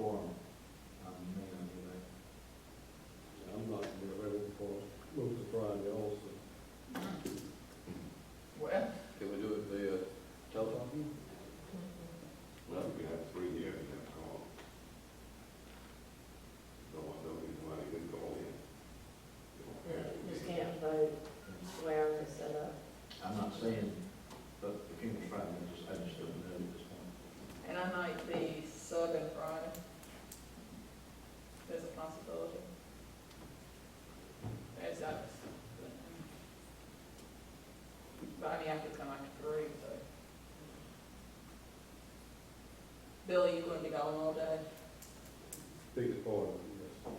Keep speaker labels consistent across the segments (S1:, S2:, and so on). S1: um,
S2: I mean, I could come after three, but. Billy, you gonna be gone all day?
S3: Biggest part of it, yes. I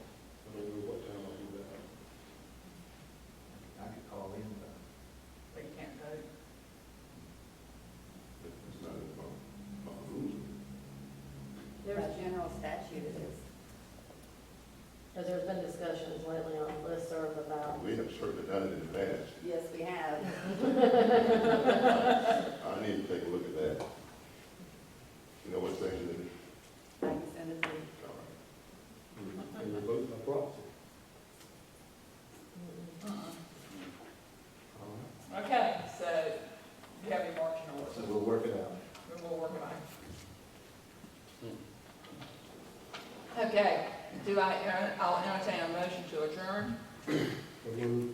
S3: don't know what time I'll be back.
S1: I could call in, but
S2: But you can't vote.
S4: It's not in my, my rules.
S5: There's a general statute that is,
S6: Because there's been discussions lately on listserv about,
S4: We have certainly done it in the past.
S5: yes, we have.
S4: I need to take a look at that. You know what thing it is?
S5: I can send it to you.
S4: All right.
S3: And we vote by proxy.
S2: Uh-uh.
S1: all right.
S4: Uh-huh.
S2: Okay, so you have your marching
S1: So
S2: orders,
S1: we'll work it out.
S2: we will work on it. Okay, do I, uh, I'll entertain a motion to adjourn.
S3: Remove.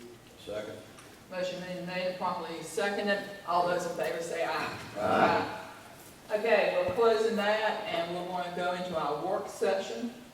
S1: Second.
S2: Motion being made, properly seconded, all those in favor say aye. Aye. Okay, we're closing that, and we're going to go into our work session.